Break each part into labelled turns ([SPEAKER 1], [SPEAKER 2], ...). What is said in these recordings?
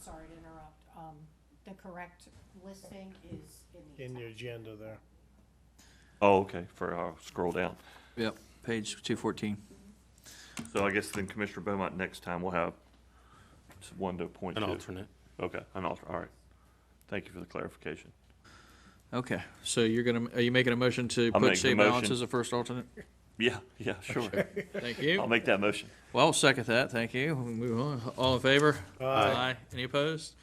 [SPEAKER 1] sorry to interrupt, um, the correct listing is in
[SPEAKER 2] in
[SPEAKER 1] the.
[SPEAKER 2] the agenda there.
[SPEAKER 3] Oh, okay, for, I'll scroll down.
[SPEAKER 4] Yep, page two fourteen.
[SPEAKER 3] So I guess then Commissioner Beaumont, next time we'll have s- one to point
[SPEAKER 5] An
[SPEAKER 3] two.
[SPEAKER 5] alternate.
[SPEAKER 3] Okay, an alter, all right. Thank you for the clarification.
[SPEAKER 4] Okay, so you're gonna, are you making a motion to
[SPEAKER 3] I'll
[SPEAKER 4] put
[SPEAKER 3] make the
[SPEAKER 4] save balance
[SPEAKER 3] motion.
[SPEAKER 4] as a first alternate?
[SPEAKER 3] Yeah, yeah, sure.
[SPEAKER 4] Thank
[SPEAKER 3] I'll
[SPEAKER 4] you.
[SPEAKER 3] make that motion.
[SPEAKER 4] Well, I'll second that, thank you. We'll move on. All in favor? Aye. Any opposed?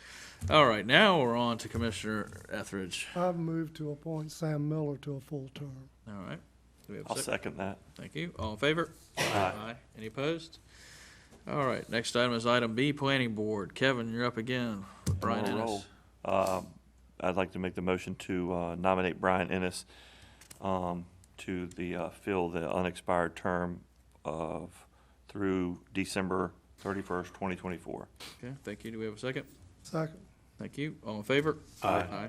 [SPEAKER 4] All right, now we're on to Commissioner Etheridge.
[SPEAKER 6] I've moved to appoint Sam Miller to a full term.
[SPEAKER 4] All right. Do we have a
[SPEAKER 3] I'll
[SPEAKER 4] second?
[SPEAKER 3] second that.
[SPEAKER 4] Thank you. All in favor? Aye. Any opposed? All right, next item is item B, Planning Board. Kevin, you're up again. with
[SPEAKER 3] I'm on
[SPEAKER 4] Brian
[SPEAKER 3] a
[SPEAKER 4] Ennis.
[SPEAKER 3] roll. Um, I'd like to make the motion to uh, nominate Brian Ennis um, to the, uh, fill the unexpired term of, through December thirty-first, twenty twenty-four.
[SPEAKER 4] Okay, thank you. Do we have a second?
[SPEAKER 6] Second,
[SPEAKER 4] Thank you. All in favor? Aye.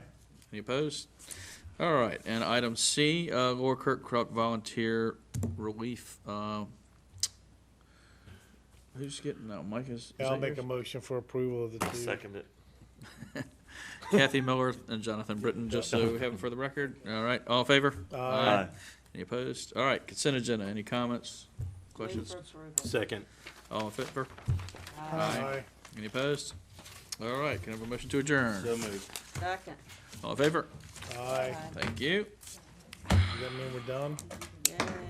[SPEAKER 4] Any opposed? All right, and item C, uh, Laura Kirkcrop Volunteer Relief, uh, who's getting, no, Mike is. is
[SPEAKER 2] Yeah, I'll
[SPEAKER 4] that
[SPEAKER 2] make a
[SPEAKER 4] yours?
[SPEAKER 2] motion for approval of the two.
[SPEAKER 3] it.
[SPEAKER 4] Kathy Miller and Jonathan Britton, just so we have it for the record. All right, all in favor?
[SPEAKER 3] Aye.
[SPEAKER 4] Any opposed? All right, consent agenda. Any comments,
[SPEAKER 1] Move
[SPEAKER 4] questions?
[SPEAKER 1] for approval.
[SPEAKER 5] Second.
[SPEAKER 4] All in favor?
[SPEAKER 2] Aye.
[SPEAKER 4] Any opposed? All right, can I have a motion to adjourn?
[SPEAKER 5] moved.
[SPEAKER 7] Second,
[SPEAKER 4] All in favor?
[SPEAKER 2] Aye.
[SPEAKER 4] Thank you.
[SPEAKER 2] Does that mean we're done?
[SPEAKER 7] yeah.